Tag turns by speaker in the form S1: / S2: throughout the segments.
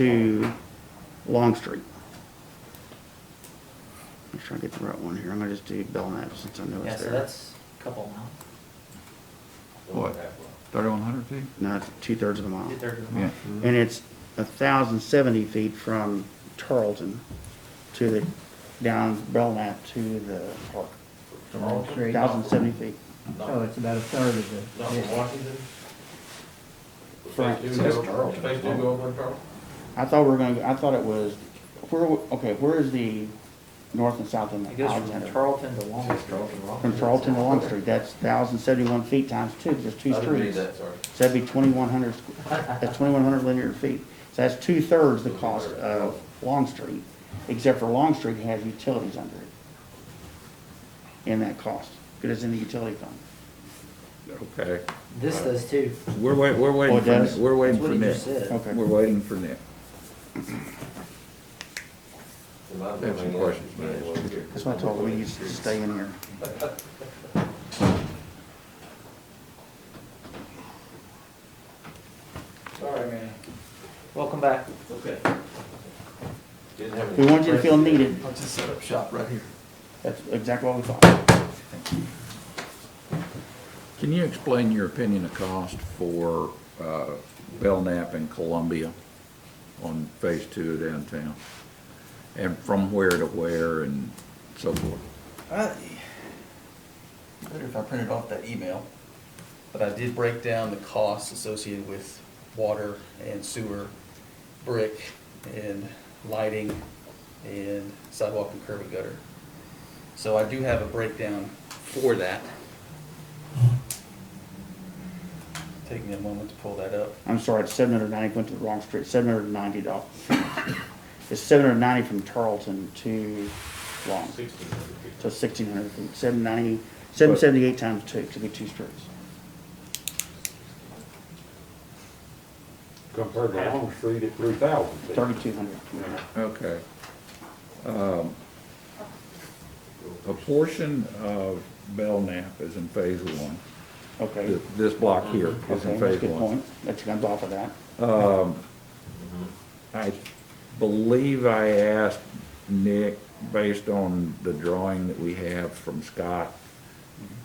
S1: to Long Street. Make sure I get the right one here. I'm gonna just do Belknap since I know
S2: Yeah,
S1: it's
S2: so
S1: there.
S2: that's a couple miles,
S3: What? Thirty-one hundred feet?
S1: No, it's two thirds of a mile.
S2: two thirds of a
S3: Oh. Yeah.
S2: mile.
S1: And it's a thousand seventy feet from Tarleton to the, down Belknap to the park.
S4: From Wall Street,
S1: Thousand seventy feet.
S4: so it's about a third of the.
S5: Not from
S4: distance.
S5: Washington?
S1: Frank,
S5: Phase two
S3: that's
S5: go-
S3: Charleston.
S5: Phase two go over to Charleston?
S1: I thought we were gonna, I thought it was, where, w- okay, where is the north and south end
S2: It
S1: of
S2: goes from
S1: Alexander?
S2: Charlton to Long Street.
S1: From Tarleton to Long Street, that's thousand seventy-one feet times two, there's two
S5: I didn't read
S1: streets.
S5: that, sorry.
S1: So that'd be twenty-one hundred, that's twenty-one hundred linear feet. So that's two-thirds the cost of Long Street, except for Long Street has utilities under it. In that cost, because it's in the utility fund.
S3: Okay,
S2: This does too.
S3: we're wait, we're
S1: Oh,
S3: waiting
S1: it
S3: for, Nick.
S1: does?
S3: we're
S2: That's
S3: waiting
S2: what
S3: for
S2: he
S3: Nick.
S2: just said.
S1: Okay.
S3: We're waiting for Nick.
S5: In my
S3: Have some
S5: opinion,
S3: questions,
S5: yeah,
S3: man.
S5: well, here.
S1: That's why I told them, we used to stay in here.
S2: Sorry, man. Welcome back.
S5: Didn't have
S1: We
S5: any-
S1: wanted you to feel needed.
S6: I'll just set up shop right here.
S1: That's exactly what we thought.
S3: Can you explain your opinion of cost for, uh, Belknap and Columbia on phase two of downtown? And from where to where and so forth?
S6: I- Better if I printed off that email, but I did break down the costs associated with water and sewer, brick and lighting and sidewalk and curb and gutter. So I do have a breakdown for that. Take me a moment to pull that up.
S1: I'm sorry, it's seven hundred ninety, went to the wrong street, seven hundred ninety dollars. It's seven hundred ninety from Tarleton to Long.
S5: Sixteen hundred feet.
S1: So sixteen hundred feet, seven ninety, seven seventy-eight times two, could be two streets.
S7: compared to Long Street at three thousand feet.
S1: Thirty-two hundred.
S3: Okay. Um, A portion of Belknap is in phase one.
S1: Okay.
S3: Th- This block here is
S1: Mm-hmm. Okay,
S3: in
S1: that's a
S3: phase
S1: good
S3: one.
S1: point. That comes off of that.
S3: I believe I asked Nick, based on the drawing that we have from Scott,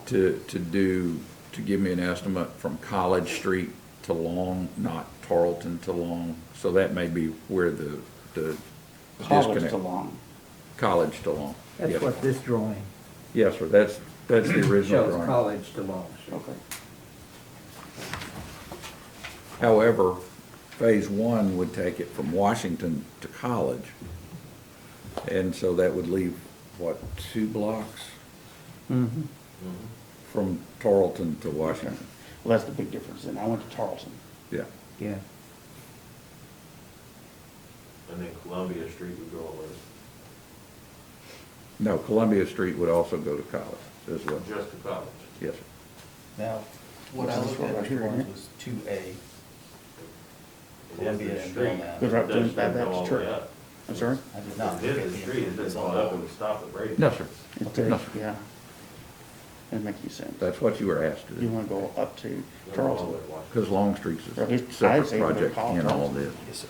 S3: to, to do, to give me an estimate from College Street to Long, not Tarleton to Long. So that may be where the, the
S1: College
S3: disconnect.
S1: to Long.
S3: College to Long.
S4: That's
S3: Yes.
S4: what this drawing
S3: Yes, sir, that's, that's the original
S4: shows,
S3: drawing.
S4: college to Long Street.
S1: Okay.
S3: However, phase one would take it from Washington to College. And so that would leave, what, two blocks
S1: Mm-hmm.
S3: from Tarleton to Washington?
S1: Well, that's the big difference. And I went to Tarleton.
S3: Yeah,
S4: Yeah.
S5: And then Columbia Street would go all over,
S3: no, Columbia Street would also go to College as well.
S5: just to college.
S3: Yes, sir.
S6: Now, what I
S1: This is
S6: looked
S1: what
S6: at
S1: right
S6: which
S1: here, isn't
S6: ones
S1: it?
S6: was two A.
S5: It is
S6: Columbia
S5: the
S6: and
S5: street.
S6: Belknap.
S1: Goes right
S5: It doesn't
S1: to Bad
S5: go
S1: Baptist
S5: all the
S1: Church.
S5: way up.
S1: I'm sorry?
S6: I did not.
S5: It is the street, it doesn't fall up and stop at Brady.
S3: No, sir,
S1: It
S3: Okay.
S1: does, Yeah. That makes you sense.
S3: that's what you were asked to
S1: You
S3: do.
S1: want to go up to
S5: Doesn't go all the
S1: Tarleton.
S5: way to Washington.
S3: Because Longstreet's
S1: Well,
S3: a
S1: it's- I'd
S3: separate
S1: say go to
S3: project in
S1: College.
S3: all this.
S6: Yes, sir.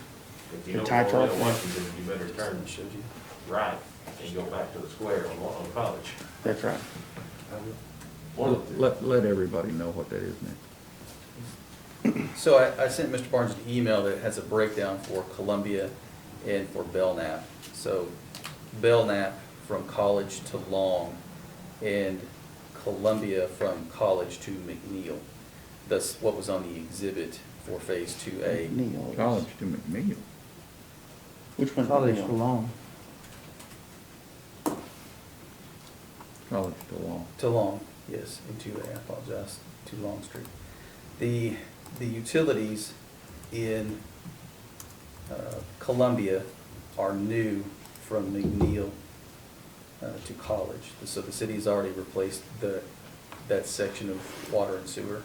S5: If you
S1: The
S5: don't
S1: tie
S5: go all the way to
S1: truck.
S5: Washington, you better turn
S6: Showed you.
S5: right and go back to the square on, on college.
S1: That's right.
S5: One of the two.
S3: Let, let everybody know what that is, Nick.
S6: So I, I sent Mr. Barnes an email that has a breakdown for Columbia and for Belknap. So Belknap from College to Long and Columbia from College to McNeil. That's what was on the exhibit for Phase Two A.
S1: Neil. is-
S3: College to McNeil.
S1: Which one's
S4: College to
S1: Neil?
S4: Long.
S3: College to Long.
S6: To Long, yes, and to, I apologize, to Long Street. The, the utilities in uh, Columbia are new from McNeil uh, to College. So the city has already replaced the, that section of water and sewer.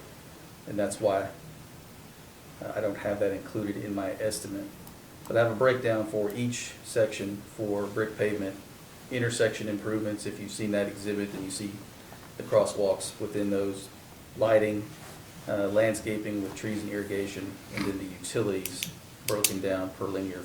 S6: And that's why Uh, I don't have that included in my estimate. But I have a breakdown for each section for brick pavement, intersection improvements, if you've seen that exhibit, then you see the crosswalks within those, lighting, uh, landscaping with trees and irrigation, and then the utilities broken down per linear